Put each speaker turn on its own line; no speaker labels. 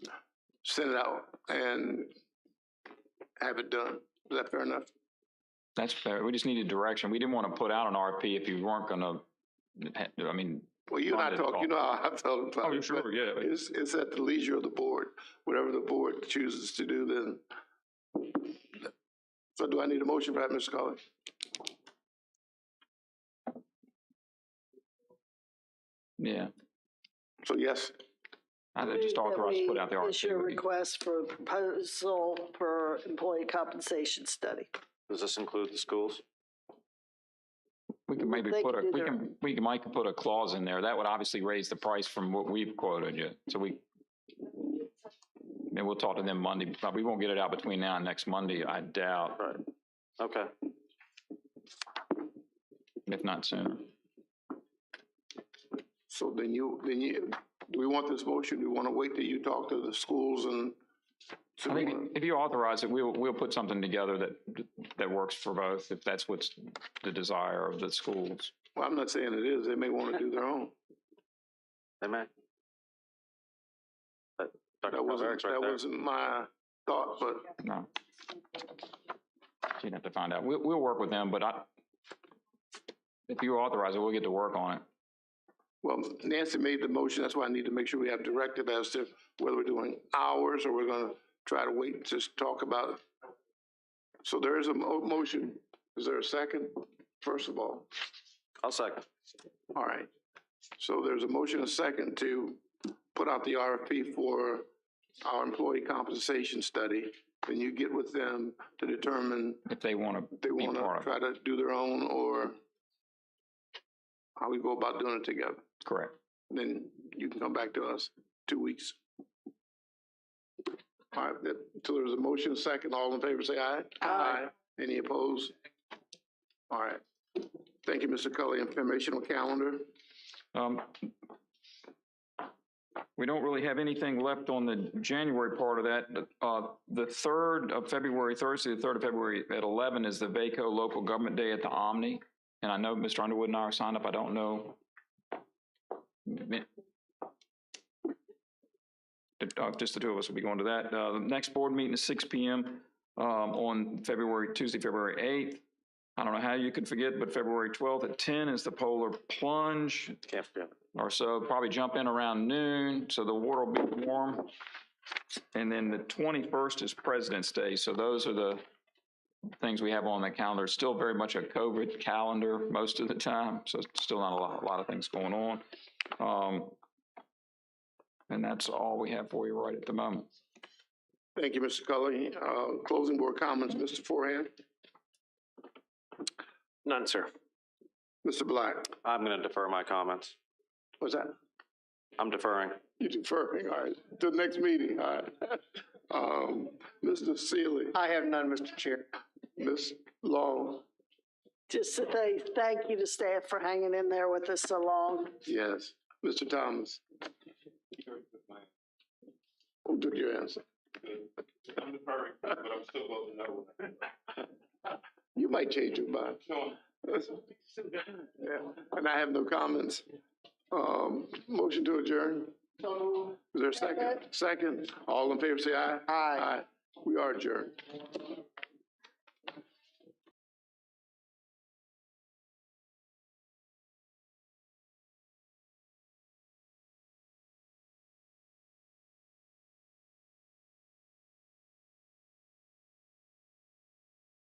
send it out and have it done. Is that fair enough?
That's fair. We just needed direction. We didn't want to put out an RP if you weren't gonna, I mean,
Well, you and I
Not at
talk, you
all.
know how I felt about it.
oh, sure, yeah. but-
It's, it's at the leisure of the board, whatever the board chooses to do then. So do I need a motion for that, Mr. Collins?
Yeah,
So yes,
I think just
Move that
authorized to put
we
out the
Issue a
RFP. would be-
request for a proposal for employee compensation study.
Does this include the schools?
We can maybe
They
put
can
a,
do
we
their-
can, we can, Mike can put a clause in there. That would obviously raise the price from what we've quoted you. So we, and we'll talk to them Monday, but we won't get it out between now and next Monday, I doubt,
Right. Okay.
if not sooner.
so then you, then you, do we want this motion? Do we want to wait till you talk to the schools and?
I think if you authorize it, we'll, we'll put something together that, that works for both, if that's what's the desire of the schools.
Well, I'm not saying it is. They may want to do their own.
Amen. Uh, That Dr.
That wasn't,
Calvert's right
that
there.
wasn't my thought, but
No. You'd have to find out. We'll, we'll work with them, but I, if you authorize it, we'll get to work on it.
Well, Nancy made the motion, that's why I need to make sure we have directive as to whether we're doing hours or we're gonna try to wait and just talk about it. So there is a mo- motion, is there a second, first of all?
I'll second.
All right, so there's a motion, a second to put out the RFP for our employee compensation study. Can you get with them to determine
If they want to,
if they
Be part
wanna
of it.
try to do their own or how we go about doing it together?
correct.
then you can come back to us two weeks. All right, that, so there's a motion, second, all in favor, say aye.
Aye.
Any opposed? All right. Thank you, Mr. Cully, informational calendar.
Um, we don't really have anything left on the January part of that. but, Uh, the third of February, Thursday, the third of February at eleven is the VACO Local Government Day at the Omni. And I know Mr. Underwood and I are signed up. I don't know. Uh, Just the two of us will be going to that. Uh, the next board meeting is six P M, um, on February, Tuesday, February eighth. I don't know how you could forget, but February twelfth at ten is the Polar Plunge
Can't forget.
or so, probably jump in around noon, so the water will be warm. And then the twenty-first is President's Day, so those are the things we have on the calendar. Still very much a COVID calendar most of the time, so it's still not a lot, a lot of things going on. Um, and that's all we have for you right at the moment.
Thank you, Mr. Cully. Uh, closing board comments, Mr. Forehand,
None, sir.
Mr. Black.
I'm gonna defer my comments.
What's that?
I'm deferring.
You deferring, all right, to the next meeting, all right. Um, Mr. Sealy,
I have none, Mr. Chair.
Ms. Long,
Just to say thank you to staff for hanging in there with us so long.
yes. Mr. Thomas. Who took your answer?
I'm deferring, but I'm still voting no.
You might change your mind.
So,
Yeah, And I have no comments. Um, motion to adjourn. Is there a second? Second. All in favor, say aye.
Aye.
We are adjourned.